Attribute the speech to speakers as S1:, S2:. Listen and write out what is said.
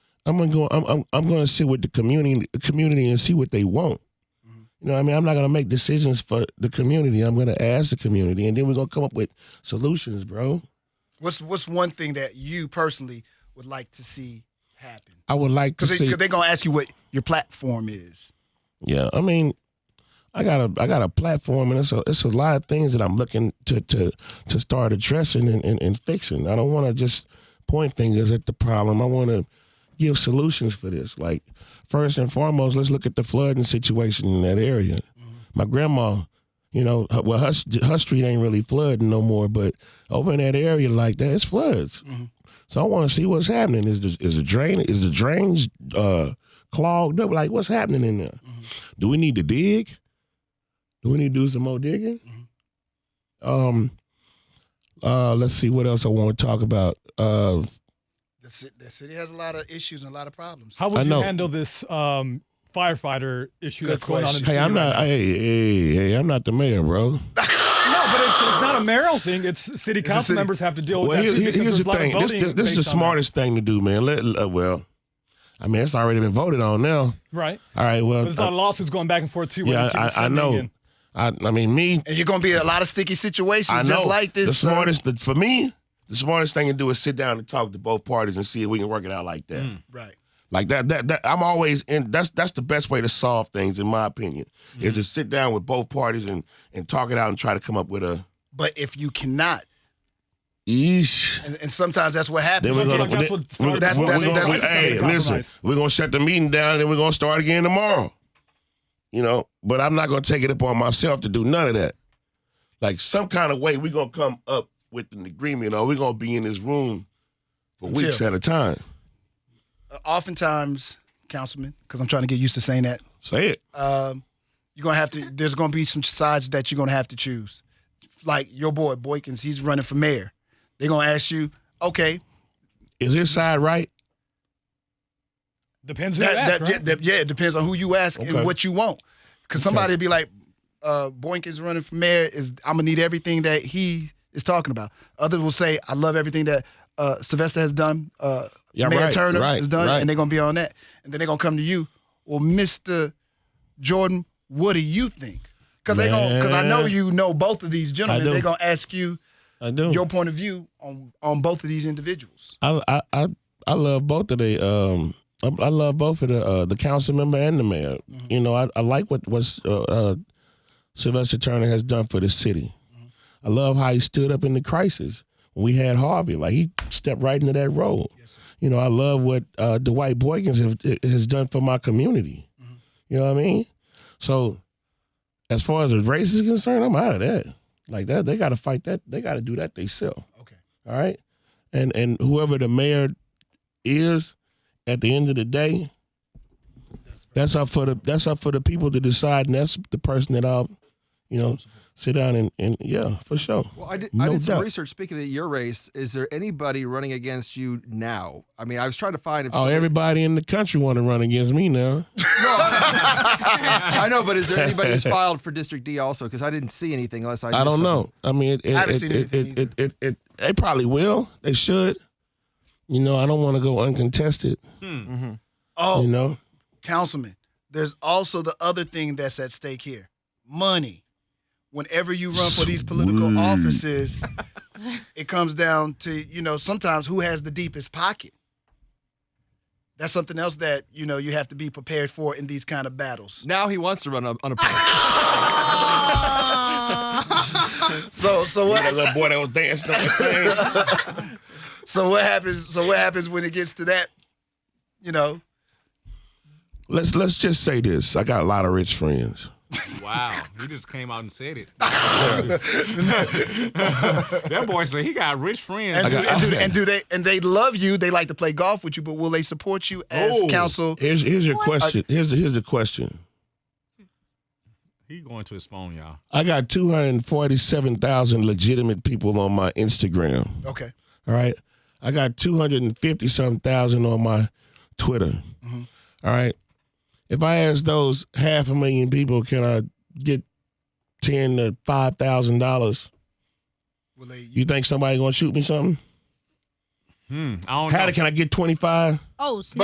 S1: I'm gonna go. I'm I'm, I'm gonna sit with the community community and see what they want. You know, what I mean, I'm not gonna make decisions for the community. I'm gonna ask the community, and then we're gonna come up with solutions, bro.
S2: What's what's one thing that you personally would like to see happen?
S1: I would like to
S2: Because
S1: see.
S2: they, are gonna ask you what your platform is.
S1: Yeah, I mean, I got a I got a platform, and it's a it's a lot of things that I'm looking to to to start addressing and, and, and fixing. I don't want to just point fingers at the problem. I want to give solutions for this. Like first and foremost, let's look at the flooding situation in that area.
S2: Mm-hmm,
S1: My grandma, you know, her- well, her, her street ain't really flooding no more, but over in that area like that, it's floods.
S2: mm-hmm,
S1: So I want to see what's happening. Is the, is the drain is the drains uh, clogged up? Like what's happening in there?
S2: mm-hmm.
S1: Do we need to dig? Do we need to do some more digging?
S3: Mm-hmm.
S1: Um, uh, let's see what else I want to talk about. Uh,
S2: The, ci- the city has a lot of issues and a lot of problems.
S3: How
S1: I
S3: would you
S1: know.
S3: handle this um, firefighter issue
S2: Good
S3: that's going on? In
S2: question.
S1: hey,
S3: the city
S1: I'm
S3: right
S1: not.
S3: now?
S1: Hey, hey, hey, I'm not the mayor, bro.
S3: no, but it's, it's not a mayoral thing. It's city
S2: It's a
S3: council
S2: city-
S3: members have to deal with
S1: Well,
S3: that.
S1: here-
S3: too,
S1: here-
S3: because
S1: here's
S3: there's a
S1: the
S3: lot of
S1: thing. This,
S3: voting
S1: this, this is the
S3: based on that.
S1: smartest thing to do, man. Let, uh, well, I mean, it's already been voted on now.
S3: right?
S1: All right, well,
S3: But there's a lot of lawsuits going back and forth too. where
S1: Uh, yeah,
S3: you keep
S1: I, I
S3: sending
S1: know.
S3: in-
S1: I, I mean, me,
S2: And you're gonna be in a lot of sticky situations
S1: I know.
S2: just like this.
S1: the
S2: sir.
S1: smartest the, for me. The smartest thing to do is sit down and talk to both parties and see if we can work it out like
S3: Mm.
S1: that.
S2: Right.
S1: Like that, that, that I'm always in. That's that's the best way to solve things, in my opinion,
S3: Mm.
S1: is to sit down with both parties and and talk it out and try to come up with a.
S2: But if you cannot,
S1: Eesh.
S2: and, and sometimes that's what happens.
S1: Then we're
S3: Look,
S1: gonna.
S3: like that's what started-
S2: That's- that's-
S1: we're-
S2: that's
S1: we're-
S2: what-
S1: hey,
S3: compromise.
S1: listen, we're gonna shut the meeting down, and then we're gonna start again tomorrow. You know, but I'm not gonna take it upon myself to do none of that. Like some kind of way, we're gonna come up with an agreement, or we're gonna be in this room for
S2: Until-
S1: weeks at a time.
S2: Uh, oftentimes, councilman, because I'm trying to get used to saying that.
S1: Say it.
S2: um, you're gonna have to. There's gonna be some sides that you're gonna have to choose. Like your boy Boykins, he's running for mayor. They're gonna ask you, okay,
S1: Is his side right?
S3: Depends who you
S2: that,
S3: ask,
S2: that,
S3: right?
S2: yeah, that- yeah, it depends on who you ask
S1: Okay.
S2: and what you want. Because somebody be like, uh, Boykins running for mayor is I'm gonna need everything that he is talking about. Others will say, I love everything that uh, Sylvester has done. Uh,
S1: Yeah,
S2: mayor
S1: right,
S2: Turner
S1: right,
S2: has done,
S1: right.
S2: and they're gonna be on that. And then they're gonna come to you. Well, Mister Jordan, what do you think? Because they gonna, because I know
S1: Man.
S2: you know both of these
S1: I
S2: gentlemen.
S1: do.
S2: They're gonna ask you
S1: I do.
S2: your point of view on on both of these individuals.
S1: I I I, I love both of the um I, I love both of the uh, the council member and the mayor. You know, I, I like what what uh, uh, Sylvester Turner has done for the city. I love how he stood up in the crisis when we had Harvey. Like he stepped right into that role. you know, I love what uh, Dwight Boykins have, has done for my community. You know what I mean? So, as far as the race is concerned, I'm out of that. Like that, they got to fight that. They got to do that themselves.
S2: Okay.
S1: All right. And and whoever the mayor is, at the end of the day, that's up for the that's up for the people to decide, and that's the person that I'll, you know, sit down and and yeah, for sure.
S4: Well, I did, I
S1: No
S4: did some
S1: doubt.
S4: research. Speaking of your race, is there anybody running against you now? I mean, I was trying to find. If
S1: Oh, everybody in the country want to run against me now.
S4: I know, but is there anybody who's filed for District D also? Because I didn't see anything unless
S1: I
S4: I. missed
S1: don't
S4: something.
S1: know. I mean, it, it,
S2: I haven't
S1: it,
S2: seen
S1: it,
S2: anything
S1: it, it, it, it- they probably will. They should. You know, I don't want to go uncontested.
S4: Mm-hmm.
S2: Oh,
S1: You know,
S2: councilman, there's also the other thing that's at stake here money. Whenever you run for these political
S1: Sweet.
S2: offices, it comes down to, you know, sometimes who has the deepest pocket. That's something else that, you know, you have to be prepared for in these kind of battles.
S4: Now he wants to run on on a.
S2: So so
S1: that
S2: what
S1: little boy that was dancing on the thing.
S2: so what happens so what happens when it gets to that, you know?
S1: Let's let's just say this. I got a lot of rich friends.
S5: Wow, he just came out and said it. that boy said he got rich friends.
S2: And do,
S1: got-
S2: and, do, and do they and they love you, they like to play golf with you, but will they support you as
S5: Oh.
S2: council?
S1: Here's here's your question. Here's the, here's the question.
S5: He going to his phone, y'all.
S1: I got two hundred forty-seven thousand legitimate people on my Instagram.
S2: Okay.
S1: All right. I got 250 something thousand on my Twitter. All right. If I ask those half a million people, can I get ten to five thousand dollars?
S2: Will they
S1: You think somebody gonna shoot me something?
S5: Hmm. I don't
S1: How
S5: know.
S1: can I get twenty five?
S6: Oh,